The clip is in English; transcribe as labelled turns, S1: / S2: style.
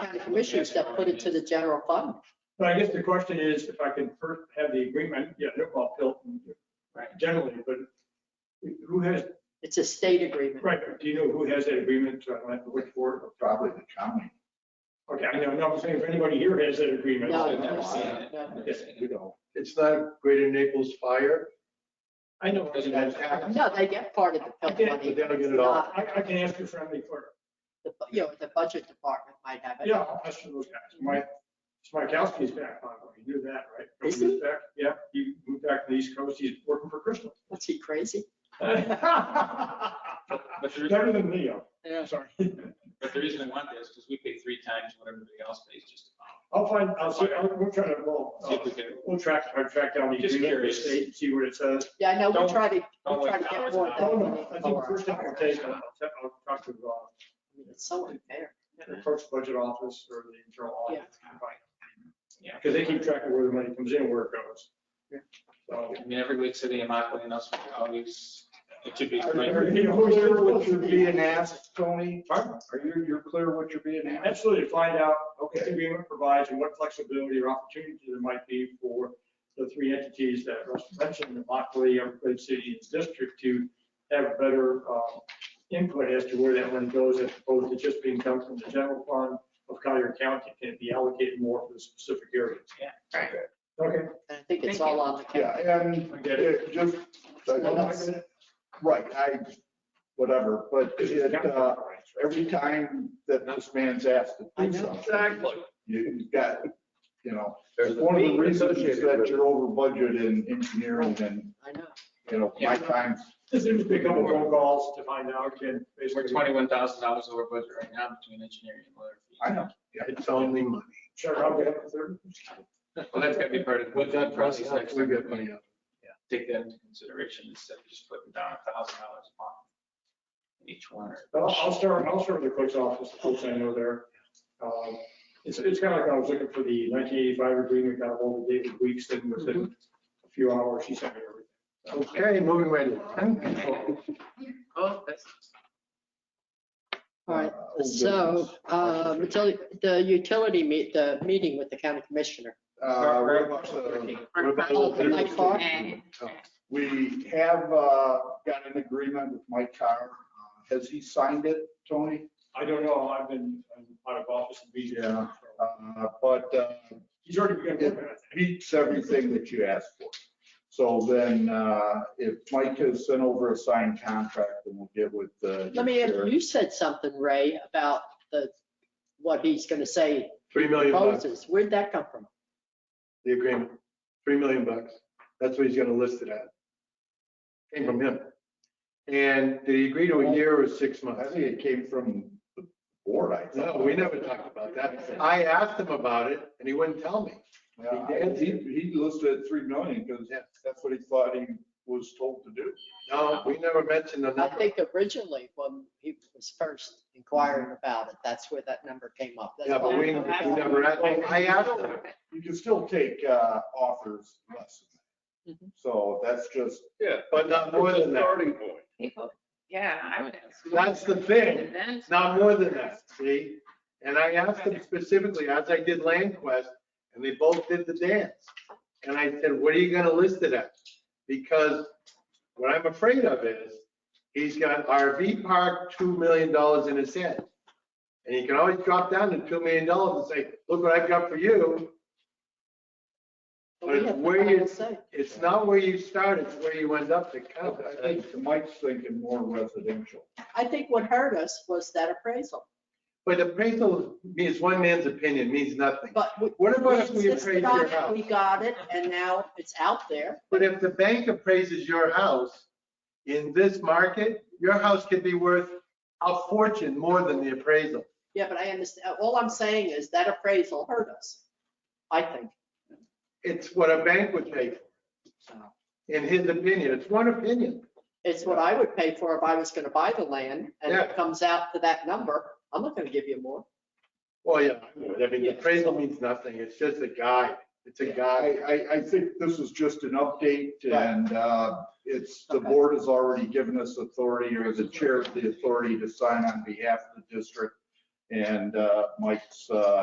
S1: county commissioners that put it to the general fund.
S2: But I guess the question is, if I can first have the agreement, yeah, they're all Hilton generally, but who has,
S1: It's a state agreement.
S2: right, but do you know who has that agreement? So I don't have to look for it.
S3: probably the county.
S2: Okay, I know, no, I'm saying if anybody here has that agreement.
S1: No,
S2: then that's-
S1: no, no.
S2: Yes,
S3: You know,
S4: It's not Greater Naples Fire.
S2: I know.
S3: Doesn't have
S2: I,
S1: No, they get part of the
S2: I
S1: Pell
S2: can't-
S1: money.
S4: but they don't get
S1: It's
S4: it all.
S1: not-
S2: I can ask your friendly clerk.
S1: the bu- You know, the budget department might have it.
S2: Yeah, I'll ask those guys. Mike, Smikowski's back, by the way. You knew that, right?
S1: Is
S2: He moved back- Yeah, he moved back to the East Coast. He's working for Crystal.
S1: Was he crazy?
S2: Better
S5: But the reason,
S2: than Leo.
S1: Yeah.
S2: Sorry.
S5: but the reason I want that is because we pay three times what everybody else pays just about.
S2: I'll find, I'll see, I'll- we'll try to, well,
S5: See
S2: uh,
S5: if we can,
S2: we'll track, I'll track down the
S5: Just
S2: agreement, the
S5: curious.
S2: state, and see what it says.
S1: Yeah, I know, we
S5: Don't-
S1: try to,
S5: don't
S1: we try to
S5: like
S1: get
S5: hours
S1: more
S5: and
S2: I don't
S1: than we
S2: know.
S1: need
S2: I think
S1: for.
S2: first thing I'll take, I'll, I'll talk to the,
S1: I mean, It's so unfair.
S2: the clerk's budget office or the internal audit.
S5: Yeah.
S2: Because they keep track of where the money comes in, and where it goes.
S1: Yeah.
S2: So.
S5: I mean, every week city of Mockley and us always, it should be.
S2: Are
S4: Are
S2: you
S4: you clear what you're being asked, Tony?
S2: Pardon?
S4: Are you, you're clear what you're being asked?
S2: Absolutely, find out what the agreement provides and what flexibility or opportunity there might be for the three entities that Russ mentioned, the Lockley, Everglades City, and District to have better uh, input as to where that money goes as opposed to just being done from the general fund of Collier County. Can it be allocated more for the specific areas?
S3: Right.
S2: Okay.
S1: And I think it's
S6: Thank
S1: all
S6: you.
S1: on the county.
S4: Yeah, and
S2: I get it.
S4: it just, uh,
S1: Well, that's-
S4: right, I, whatever, but it, uh, every time that this man's asked to
S1: I
S4: do
S1: know.
S4: something, you've got, you know, it's one of the reasons that you're over budget in engineering and,
S1: I know.
S4: you know, my time's
S2: Just need to pick up more phone calls to find out and
S5: We're
S2: basically
S5: twenty-one thousand dollars over budget right now between engineering and lawyer fees.
S4: I know. It's only money.
S2: check out. the other-
S5: Well, that's gotta be part of. With that process, next
S4: We
S5: week,
S4: get money.
S5: take that into consideration instead of just putting down a thousand dollars a month. in Each one or.
S2: I'll, I'll start, I'll start with the clerk's office, the folks I know there. Um, It's, it's kind of like I was looking for the 1985 agreement, got ahold of David Weeks, and within a few hours, he sent me everything.
S3: Okay, moving right in.
S6: Oh, that's.
S1: All right,
S4: Uh, old
S1: so,
S4: business. Uh,
S1: um, util- the utility meet, the meeting with the county commissioner.
S4: Uh, what about the- what about the-
S1: Oh, Mike Carr?
S4: We have uh, got an agreement with Mike Carr. Uh, Has he signed it, Tony?
S2: I don't know, I've been I'm out of office and busy.
S4: Yeah. Uh, But uh,
S2: He's already begun working on it.
S4: meets everything that you asked for. So then uh, if Mike has sent over a signed contract, then we'll get with the.
S1: Let me, ask you you said something, Ray, about the, what he's gonna say
S7: Three million bucks,
S1: proposes. Where'd that come from?
S7: the agreement, three million bucks. That's what he's gonna list it at. Came from him. And did he agree to a year or six
S4: I
S7: months?
S4: think it came from the board, I
S7: No,
S4: thought.
S7: we never talked about that. I asked him about it and he wouldn't tell me.
S4: Yeah, I- He he listed it three million because that's what he thought he was told to do.
S7: No, we never mentioned the
S1: I
S7: number.
S1: think originally when he was first inquiring about it, that's where that number came up. That's
S7: Yeah, but we we
S1: why-
S7: never asked. I asked him.
S4: You can still take uh, offers less. than
S1: Mm-hmm.
S4: that. So that's just
S7: Yeah. But not more than that.
S6: People, yeah, I would ask. more.
S7: That's the thing.
S6: And then-
S7: Not more than that, see? And I asked them specifically, as I did Land Quest, and they both did the dance. And I said, what are you gonna list it at? Because what I'm afraid of is, he's got RV park, two million dollars in his head. And he can always drop down to two million dollars and say, look what I've got for you.
S1: But we
S7: But
S1: have the
S7: where you-
S1: final say.
S7: It's not where you start, it's where you end up that counts.
S4: I think Mike's thinking more residential.
S1: I think what hurt us was that appraisal,
S7: But appraisal means one man's opinion, means nothing.
S1: but we.
S7: What about if
S1: we
S7: we
S1: insisted
S7: appraise
S1: on
S7: your
S1: it,
S7: house?
S1: We got it and now it's out there.
S7: But if the bank appraises your house in this market, your house could be worth a fortune more than the appraisal.
S1: Yeah, but I understand, all I'm saying is that appraisal hurt us, I think.
S7: It's what a bank would pay for. In his opinion, it's one opinion.
S1: It's what I would pay for if I was gonna buy the land and it
S7: Yeah.
S1: comes out to that number, I'm not gonna give you more.
S7: Well, yeah, I would. I mean, the appraisal means nothing. It's just a guide. It's a guide.
S4: I, I, I think this is just an update and uh, it's, the
S1: Okay.
S4: board has already given us authority or the chair of the authority to sign on behalf of the district. And uh, Mike's uh,